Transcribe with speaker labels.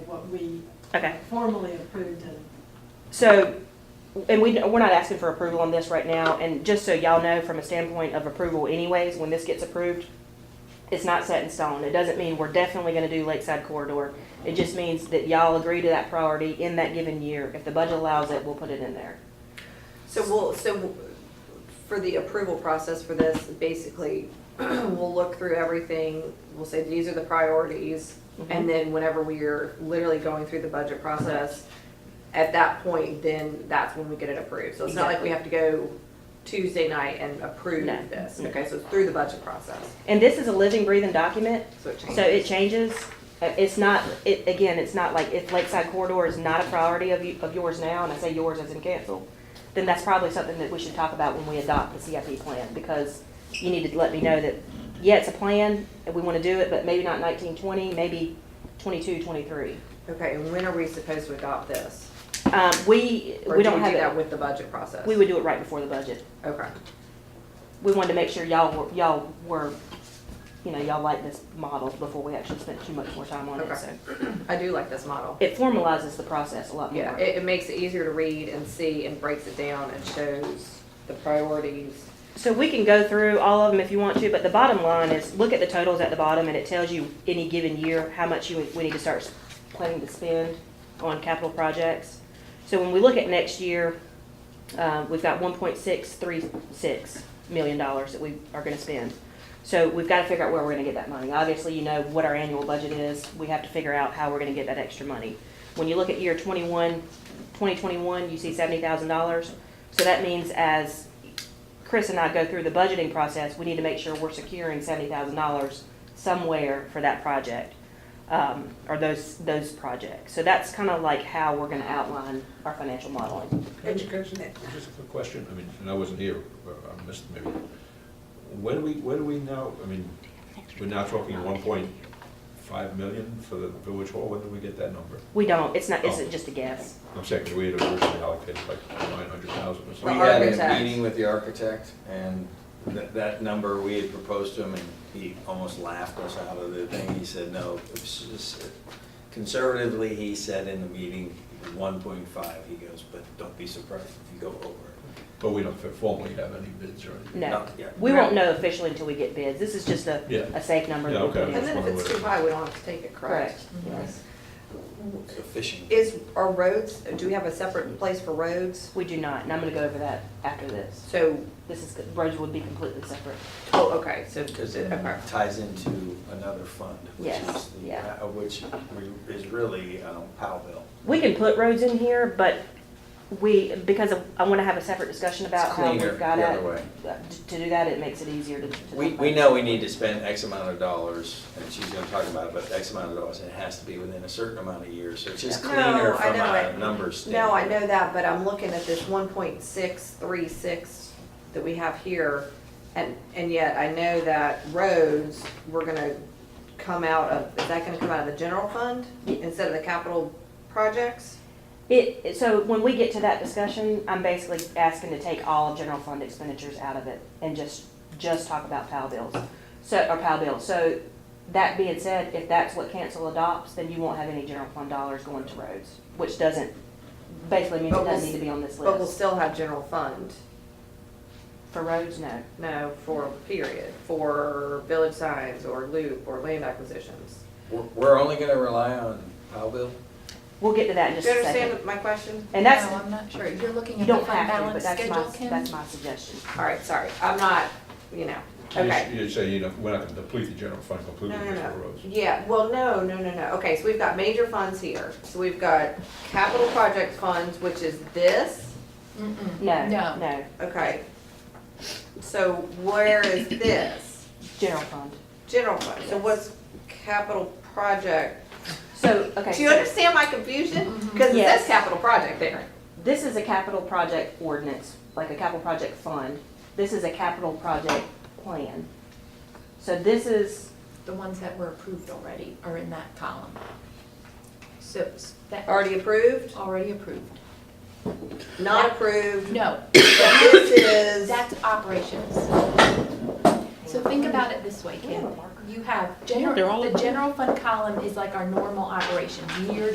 Speaker 1: we
Speaker 2: Okay,
Speaker 1: formally approved and
Speaker 2: so, and we, we're not asking for approval on this right now, and just so y'all know, from a standpoint of approval anyways, when this gets approved, it's not set in stone. It doesn't mean we're definitely gonna do Lakeside Corridor. It just means that y'all agree to that priority in that given year. If the budget allows it, we'll put it in there.
Speaker 3: So we'll, so for the approval process for this, basically, we'll look through everything, we'll say these are the priorities,
Speaker 2: Mm-hmm.
Speaker 3: and then whenever we're literally going through the budget process, at that point, then that's when we get it approved. So it's not like we have to go Tuesday night and approve
Speaker 2: No.
Speaker 3: this. Okay, so it's through the budget process,
Speaker 2: And this is a living, breathing document,
Speaker 3: so it changes.
Speaker 2: So it changes, Uh, it's not, it, again, it's not like, if Lakeside Corridor is not a priority of you, of yours now, and I say yours as in cancel, then that's probably something that we should talk about when we adopt the CIP plan, because you need to let me know that, yeah, it's a plan, and we wanna do it, but maybe not nineteen twenty, maybe twenty-two, twenty-three.
Speaker 3: Okay, and when are we supposed to adopt this?
Speaker 2: Um, we,
Speaker 3: Or
Speaker 2: we
Speaker 3: do
Speaker 2: don't
Speaker 3: do that
Speaker 2: have it,
Speaker 3: with the budget process?
Speaker 2: we would do it right before the budget.
Speaker 3: Okay,
Speaker 2: We wanted to make sure y'all were, y'all were, you know, y'all liked this model before we actually spent too much more time on it,
Speaker 3: Okay.
Speaker 2: so.
Speaker 3: I do like this model.
Speaker 2: It formalizes the process a lot more.
Speaker 3: Yeah, it, it makes it easier to read and see and breaks it down and shows the priorities.
Speaker 2: So we can go through all of them if you want to, but the bottom line is, look at the totals at the bottom, and it tells you any given year, how much you, we need to start planning to spend on capital projects. So when we look at next year, uh, we've got one point six three six million dollars that we are gonna spend. So we've gotta figure out where we're gonna get that money. Obviously, you know what our annual budget is, we have to figure out how we're gonna get that extra money. When you look at year 21, 2021, you see seventy thousand dollars. So that means as Chris and I go through the budgeting process, we need to make sure we're securing seventy thousand dollars somewhere for that project, um, or those, those projects. So that's kind of like how we're gonna outline our financial modeling.
Speaker 4: Education.
Speaker 5: Just a quick question, I mean, and I wasn't here, or I missed maybe. When do we, when do we now, I mean, we're now talking one point five million for the village hall, when did we get that number?
Speaker 2: We don't, it's not,
Speaker 5: Oh.
Speaker 2: it's just a guess.
Speaker 5: I'm saying, 'cause we had originally allocated like nine hundred thousand or
Speaker 3: The
Speaker 6: We
Speaker 5: something.
Speaker 6: had a
Speaker 3: architect.
Speaker 6: meeting with the architect, and that, that number, we had proposed to him, and he almost laughed us out of the thing. He said, no, it's just- uh, conservatively, he said in the meeting, one point five, he goes, but don't be surprised if you go over. it."
Speaker 5: But we don't formally have any bids or anything.
Speaker 2: No.
Speaker 6: Not yet.
Speaker 2: We won't know officially until we get bids. This is just a,
Speaker 5: Yeah.
Speaker 2: a safe number. that we
Speaker 5: Yeah,
Speaker 2: put
Speaker 5: okay.
Speaker 3: And
Speaker 2: in.
Speaker 3: then if it's too high, we don't have to take it, correct? Mm-hmm.
Speaker 2: Correct. Yes.
Speaker 6: It's a fishing.
Speaker 3: Is, are roads, do we have a separate place for roads?
Speaker 2: We do not, and I'm gonna go over that after this.
Speaker 3: So,
Speaker 2: This is, roads would be completely separate.
Speaker 3: oh, okay, so,
Speaker 6: Because it
Speaker 3: okay.
Speaker 6: ties into another fund, which
Speaker 2: Yes,
Speaker 6: is, the-
Speaker 2: yeah.
Speaker 6: uh, which re- is really um, Powellville.
Speaker 2: We can put roads in here, but we, because of- I wanna have a separate discussion about
Speaker 6: It's
Speaker 2: how
Speaker 6: cleaner
Speaker 2: we've got
Speaker 6: the
Speaker 2: it.
Speaker 6: other way.
Speaker 2: To do that, it makes it easier to. to
Speaker 6: We,
Speaker 2: talk
Speaker 6: we
Speaker 2: about.
Speaker 6: know we need to spend X amount of dollars, and she's gonna talk about it, but X amount of dollars, and it has to be within a certain amount of years, so it's just
Speaker 3: No,
Speaker 6: cleaner
Speaker 3: I
Speaker 6: from
Speaker 3: know
Speaker 6: a
Speaker 3: it.
Speaker 6: numbers
Speaker 3: No, I
Speaker 6: standpoint.
Speaker 3: know that, but I'm looking at this one point six three six that we have here, and, and yet I know that roads, we're gonna come out of, is that gonna come out of the general fund instead of the capital projects?
Speaker 2: It, it- so when we get to that discussion, I'm basically asking to take all general fund expenditures out of it and just, just talk about PAL bills. So, or PAL bills. So that being said, if that's what council adopts, then you won't have any general fund dollars going to roads, which doesn't, basically means
Speaker 3: But
Speaker 2: it
Speaker 3: we'll
Speaker 2: doesn't
Speaker 3: s-
Speaker 2: need to be on this
Speaker 3: But we'll
Speaker 2: list.
Speaker 3: still have general fund,
Speaker 2: For roads, no.
Speaker 3: no, for period, for village signs or loop or land acquisitions.
Speaker 6: We're, we're only gonna rely on Powellville?
Speaker 2: We'll get to that in
Speaker 3: Do
Speaker 2: just
Speaker 3: you
Speaker 2: a second.
Speaker 3: understand my question?
Speaker 2: And that's,
Speaker 7: No, I'm not sure. You're looking
Speaker 2: you
Speaker 7: at the
Speaker 2: don't
Speaker 7: fund
Speaker 2: have to, but
Speaker 7: balance
Speaker 2: that's
Speaker 7: schedule,
Speaker 2: my,
Speaker 7: Kim?
Speaker 2: that's my suggestion.
Speaker 3: All right, sorry, I'm not, you know,
Speaker 5: You-
Speaker 3: okay.
Speaker 5: You say, you know, we're not gonna deplete the general fund completely
Speaker 3: No, no,
Speaker 5: just for
Speaker 3: no.
Speaker 5: roads.
Speaker 3: Yeah, well, no, no, no, no. Okay, so we've got major funds here. So we've got capital project funds, which is this,
Speaker 7: Mm-mm.
Speaker 2: No,
Speaker 7: No.
Speaker 2: no,
Speaker 3: okay. So where is this?
Speaker 2: general fund.
Speaker 3: General fund. So what's capital project?
Speaker 2: So, okay.
Speaker 3: Do you
Speaker 2: so- Mm-hmm.
Speaker 3: understand my confusion? Because it
Speaker 2: Yes.
Speaker 3: says capital project there.
Speaker 2: This is a capital project ordinance, like a capital project fund. This is a capital project plan. So this is,
Speaker 7: The ones that were approved already are in that column. So s- that.
Speaker 3: Already approved,
Speaker 7: Already approved.
Speaker 3: not approved.
Speaker 7: No,
Speaker 3: But This is,
Speaker 7: that's operations. So think about it this way, Kim. You have,
Speaker 2: Yeah, they're all
Speaker 7: general. the general fund column is like our normal operations, year